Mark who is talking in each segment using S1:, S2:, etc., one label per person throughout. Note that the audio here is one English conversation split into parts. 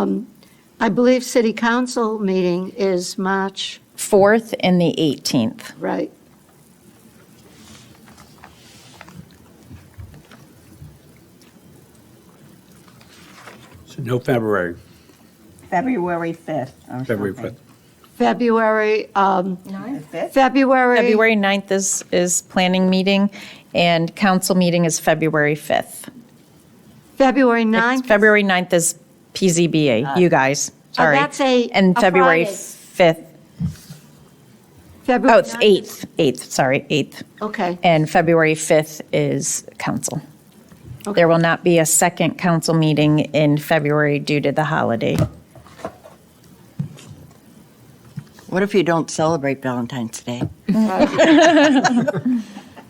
S1: Um, I believe city council meeting is March,
S2: 4th and the 18th.
S1: right?
S3: So no February,
S4: February 5th or
S3: February
S4: something.
S3: 5th.
S1: February, um,
S4: The 5th?
S1: February.
S2: February 9th is, is planning meeting, and council meeting is February 5th.
S1: February
S2: It's
S1: 9th.
S2: February 9th is PZBA, you guys, sorry.
S1: Uh, oh, that's a-
S2: And
S1: a
S2: February
S1: Friday.
S2: 5th, oh,
S1: February
S2: it's
S1: 9th.
S2: 8th, 8th, sorry, 8th.
S1: Okay.
S2: And February 5th is council. There will not be a second council meeting in February due to the holiday.
S4: What if you don't celebrate Valentine's Day?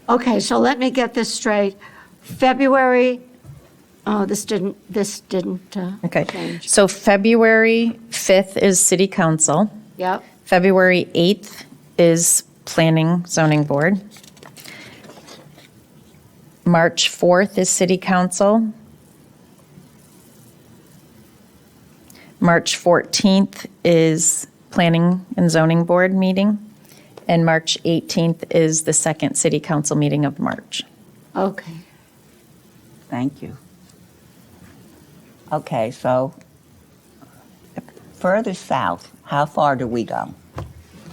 S1: Okay, so let me get this straight. February, oh, this didn't, this didn't, uh,
S2: Okay,
S1: change.
S2: so February 5th is city council.
S1: Yep,
S2: February 8th is Planning Zoning Board. March 4th is City Council. March 14th is Planning and Zoning Board meeting. And March 18th is the second City Council meeting of March.
S1: okay.
S4: Thank you. Okay, so further south, how far do we go?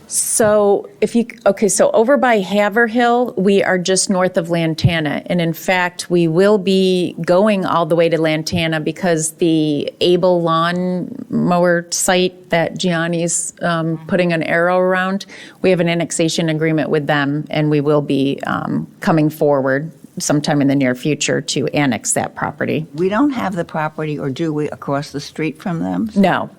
S2: So if you, okay, so over by Haverhill, we are just north of Lantana. And in fact, we will be going all the way to Lantana because the Able Lawn Mower site that Gianni's um, putting an arrow around, we have an annexation agreement with them and we will be um, coming forward sometime in the near future to annex that property.
S4: We don't have the property, or do we, across the street from them?
S2: No,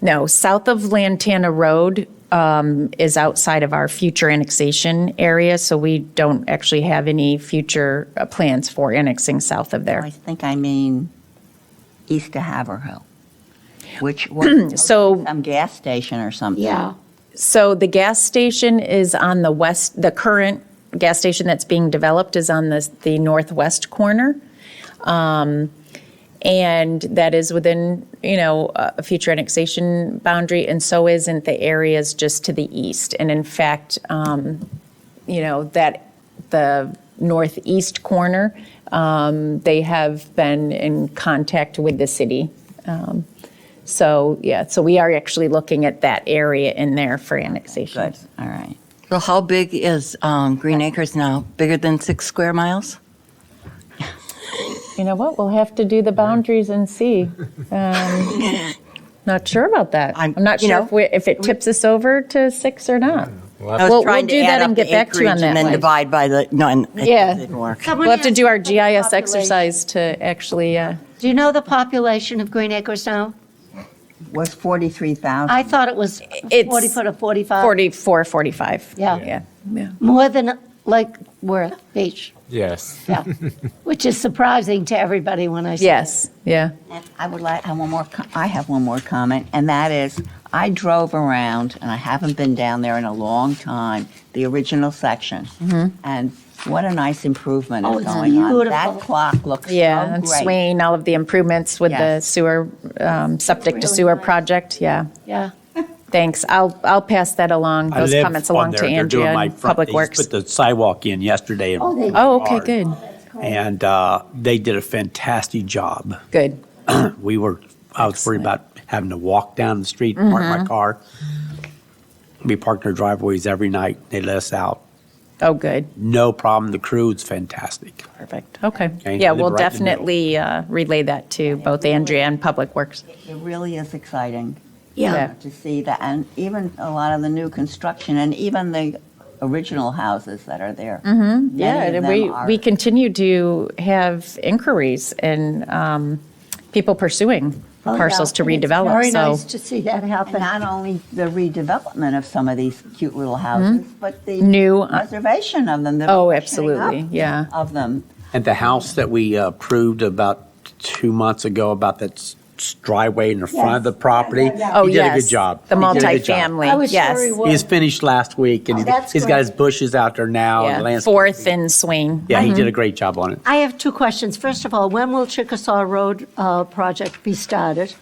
S2: no. South of Lantana Road um, is outside of our future annexation area, so we don't actually have any future uh, plans for annexing south of
S4: Oh, I
S2: there.
S4: think I mean east of Haverhill, which was
S2: So,
S4: some gas station or something.
S1: Yeah,
S2: so the gas station is on the west, the current gas station that's being developed is on the, the northwest corner. Um, And that is within, you know, a a future annexation boundary, and so isn't the areas just to the east. And in fact, um, you know, that, the northeast corner, um, they have been in contact with the city. Um, So, yeah, so we are actually looking at that area in there for annexation.
S4: Good, all right.
S5: So how big is um, Green Acres now? Bigger than six square miles?
S2: You know what, we'll have to do the boundaries and see. Um, Not sure about that. I'm
S5: I'm-
S2: not
S5: you
S2: sure
S5: know,
S2: if we, if it tips us over to six or not.
S5: I was
S2: We'll-
S5: trying
S2: we'll
S5: to
S2: do that
S5: add
S2: and
S5: up the
S2: get back to you on
S5: acreage
S2: that
S5: And
S2: one.
S5: then divide by the, no, and it
S2: Yeah.
S5: didn't work.
S1: Someone
S2: We'll have to
S1: asked
S2: do our
S1: about the
S2: GIS
S1: population.
S2: exercise to actually, uh,
S1: do you know the population of Green Acres now?
S4: Was 43,000?
S1: I thought it was
S2: It's
S1: 40 foot or 45.
S2: 44, 45.
S1: Yeah.
S2: Yeah, yeah.
S1: More than Lake Worth Beach,
S6: Yes.
S1: yeah. Which is surprising to everybody when I say.
S2: Yes, yeah.
S4: And I would like, I have one more, co- I have one more comment, and that is, I drove around, and I haven't been down there in a long time, the original section. And what a nice improvement
S1: Oh,
S4: is
S1: it's
S4: going on.
S1: beautiful.
S4: That clock looks so Oh, great.
S2: Yeah, and Swain, all of the improvements with the
S4: Yes.
S2: sewer, um, septic
S1: Really
S2: to sewer
S1: nice.
S2: project, yeah.
S1: Yeah,
S2: Thanks, I'll, I'll pass that along,
S3: I
S2: those
S3: live
S2: comments
S3: on
S2: along
S3: there.
S2: to
S3: They're doing
S2: Andrea
S3: my
S2: and
S3: front-
S2: Public
S3: they
S2: Works.
S3: Put the sidewalk in yesterday. in
S1: Oh, they-
S2: Oh, okay,
S3: Menard,
S2: good,
S3: And uh, they did a fantastic job.
S2: good.
S3: We were, I was worried about having to walk down the street, park
S2: Mm-hmm.
S3: my car. We parked in our driveways every night. They let us out.
S2: Oh, good,
S3: No problem. The crew is fantastic.
S2: perfect, okay.
S3: Okay,
S2: Yeah,
S3: live
S2: we'll
S3: right in the middle.
S2: definitely uh, relay that to both Andrea and Public Works.
S4: It really is exciting Uh,
S1: yeah.
S2: Yeah.
S4: to see that, and even a lot of the new construction, and even the original houses that are there. Mm-hmm,
S2: Yeah, and we, we continue to have inquiries and um, people pursuing
S1: Oh, yeah.
S2: parcels to
S1: And it's
S2: redevelop,
S1: Very nice
S2: so.
S1: to see that
S4: And
S1: happen.
S4: not only the redevelopment of some of these cute little houses, but the
S2: Hmm? New, uh,
S4: preservation of them. the
S2: Oh,
S4: freshening
S2: absolutely,
S4: up
S2: yeah.
S4: Of them.
S3: And the house that we uh, approved about two months ago, about that s- driveway in the front of the property.
S2: Oh,
S3: He did a
S2: yes.
S3: good job.
S2: The
S3: He did a good job.
S1: I
S2: multifamily,
S1: was sure he
S2: yes.
S1: would.
S3: He's finished last week, and
S1: That's
S3: he's
S1: great.
S3: got his bushes out there now. and
S2: Yeah,
S3: Oh, landscaping.
S2: Fourth and Swain.
S3: Yeah, he did a great job on it.
S1: I have two questions. First of all, when will Chickasaw Road uh, project be started?